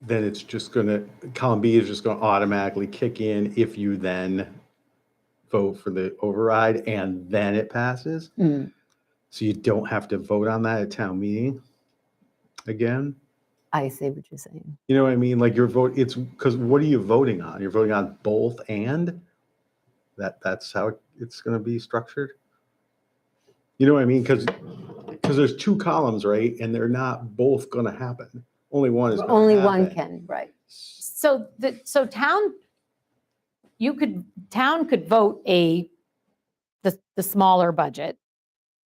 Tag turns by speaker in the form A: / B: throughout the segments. A: then it's just gonna, column B is just gonna automatically kick in if you then vote for the override and then it passes.
B: Mm.
A: So you don't have to vote on that at town meeting again.
B: I see what you're saying.
A: You know what I mean? Like your vote, it's because what are you voting on? You're voting on both and that that's how it's going to be structured. You know what I mean? Because because there's two columns, right? And they're not both going to happen. Only one is. gonna
B: Only one
A: happen.
B: can, right.
C: So the, so town, you could, town could vote a, the, the smaller budget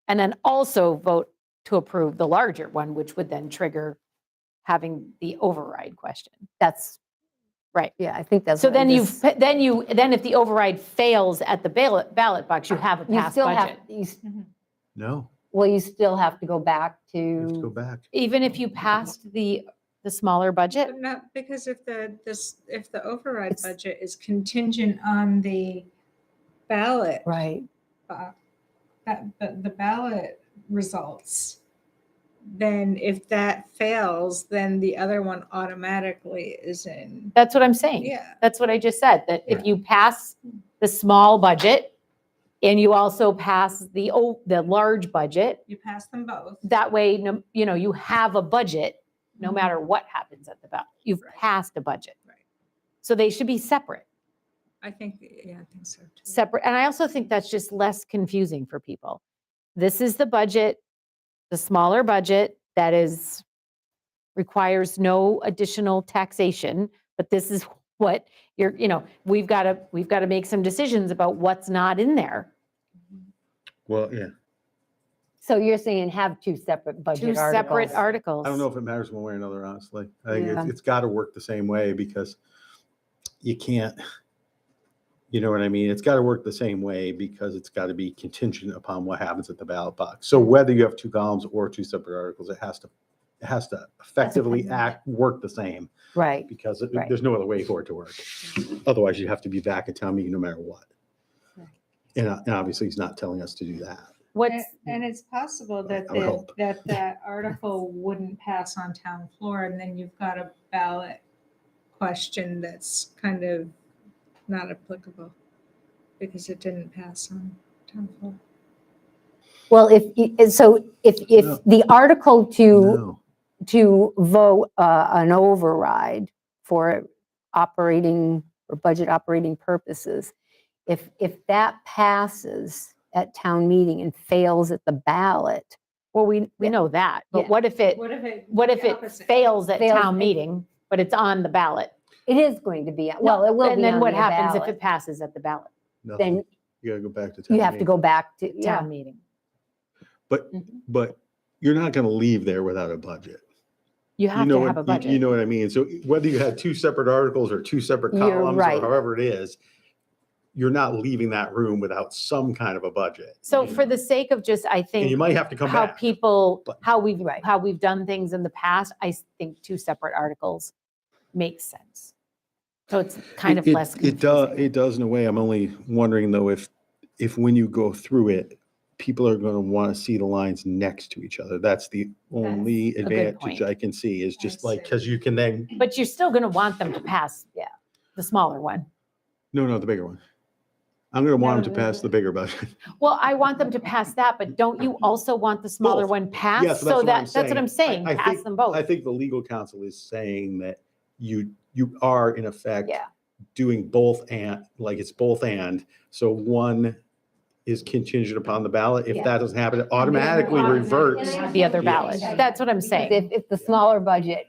C: and then also vote to approve the larger one, which would then trigger having the override question.
B: That's,
C: Right.
B: yeah, I think that's.
C: So
B: what I
C: then you've,
B: just-
C: put- then you, then if the override fails at the ballot, ballot box, you have a
B: You
C: passed
B: still have,
C: budget.
B: you s-
A: No,
B: well, you still have to go back
A: you have to go
B: to,
A: back.
C: Even if you passed the, the smaller budget,
D: But not, because if the, this, if the override
B: It's-
D: budget is contingent on the ballot,
B: right,
D: bo- that, the the ballot results, then if that fails, then the other one automatically is in,
C: that's what I'm saying.
D: yeah.
C: That's what I just said, that if you pass the small budget and you also pass the, o- the large budget,
D: You pass them both.
C: that way, no- you know, you have a budget, no
D: Mhm.
C: matter what happens at the ballot. You've
D: Right.
C: passed a budget.
D: Right.
C: So they should be separate,
D: I think, yeah, I think so too.
C: separate. And I also think that's just less confusing for people. This is the budget, the smaller budget that is, requires no additional taxation, but this is what you're, you know, we've got to, we've got to make some decisions about what's not in there.
D: Mm-hmm.
A: Well, yeah.
B: so you're saying have two separate
C: Two
B: budget
C: separate
B: articles.
C: articles.
A: I don't know if it matters one way or another, honestly. I think
B: Yeah.
A: it's, it's got to work the same way because you can't, you know what I mean? It's got to work the same way because it's got to be contingent upon what happens at the ballot box. So whether you have two columns or two separate articles, it has to, it has to effectively
C: dependent.
A: act, work the same
B: Right,
A: because it-
B: Right.
A: there's no other way for it to work. Otherwise, you have to be back at town meeting no matter what.
B: Right.
A: And, uh, and obviously, he's not telling us to do that.
C: What's,
D: And- And it's possible that,
A: I would
D: the-
A: hope.
D: that that article wouldn't pass on town floor, and then you've got a ballot question that's kind of not applicable because it didn't pass on town floor.
B: well, if, y- and so if, if
A: No.
B: the article to,
A: No.
B: to vote uh, an override for operating or budget operating purposes, if, if that passes at town meeting and fails at the ballot,
C: well, we, we
B: Yeah.
C: know that, but
B: Yeah.
C: what if it,
D: What if it?
C: what if
D: the
C: it
D: opposite?
C: fails at
B: Fails
C: town
B: at-
C: meeting, but it's on the ballot?
B: It is going to be, well, it will
C: And
B: be
C: then
B: on the
C: what happens if
B: ballot.
C: it passes at the ballot,
A: nothing.
B: Then
A: You got to go back to town.
B: you have
A: meeting.
B: to go back to, yeah,
C: town meeting?
A: But,
C: Mm-hmm.
B: Mhm.
A: but you're not going to leave there without a budget.
C: You
A: You
C: have
A: know
C: to have a
A: what, you- you
C: budget.
A: know what I mean? So whether you had two separate articles or two separate
B: You're
A: columns
B: right.
A: or however it is, you're not leaving that room without some kind of a budget.
C: So for the sake of just, I
A: And you
C: think,
A: might have to come
C: how
A: back.
C: people,
A: but-
C: how we've,
B: Right.
C: how we've done things in the past, I s- think two separate articles makes sense. So it's kind of
A: It- it-
C: less
A: It does,
C: confusing.
A: it does in a way. I'm only wondering though, if, if when you go through it, people are going to want to see the lines next to each other. That's the only
C: good
A: advantage
C: point. Mm.
A: I can see is just
D: I
A: like,
D: see.
A: because you can then,
C: But you're still going to want them to pass, yeah, the smaller one.
A: no, no, the bigger one. I'm going to want
B: No,
A: them to
B: no,
A: pass
B: no.
A: the
C: Uh.
A: bigger budget.
C: Well, I want them to pass that, but don't you also want the smaller
A: Both.
C: one
A: Yeah,
C: passed?
A: so that's
C: So
A: what I'm
C: that, that's what I'm
A: saying.
C: saying,
A: I- I
C: pass
A: think-
C: them
A: I
C: both.
A: think the legal counsel is saying that you, you are in effect
B: yeah.
A: doing both and, like it's both and. So one is contingent upon the ballot. If
B: Yeah.
A: that doesn't happen, it automatically
D: automatically-
A: reverts.
C: The other ballot,
B: Yes.
C: that's what I'm
B: Because
C: saying.
B: If, if the smaller budget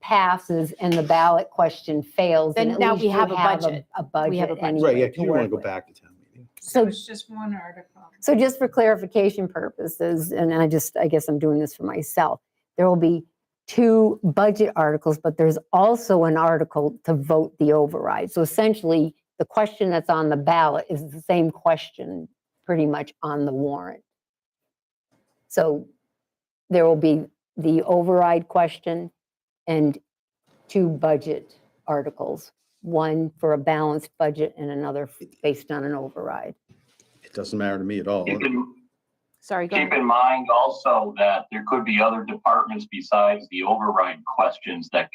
B: passes and the ballot question fails, then
C: Then
B: at
C: now
B: least
C: we
B: you
C: have a budget.
B: A
C: We have a
B: budget
C: budget.
A: Right, yeah,
B: anyway
A: 'cause
B: to
A: you want to
B: work
A: go
B: with.
A: back to town meeting.
D: So
B: So-
D: it's just one article.
B: So just for clarification purposes, and I just, I guess I'm doing this for myself, there will be two budget articles, but there's also an article to vote the override. So essentially, the question that's on the ballot is the same question pretty much on the warrant. So there will be the override question and two budget articles, one for a balanced budget and another based on an override.
A: It doesn't matter to me at all.
E: Keep in,
C: Sorry, go
E: keep
C: ahead.
E: in mind also that there could be other departments besides the override questions that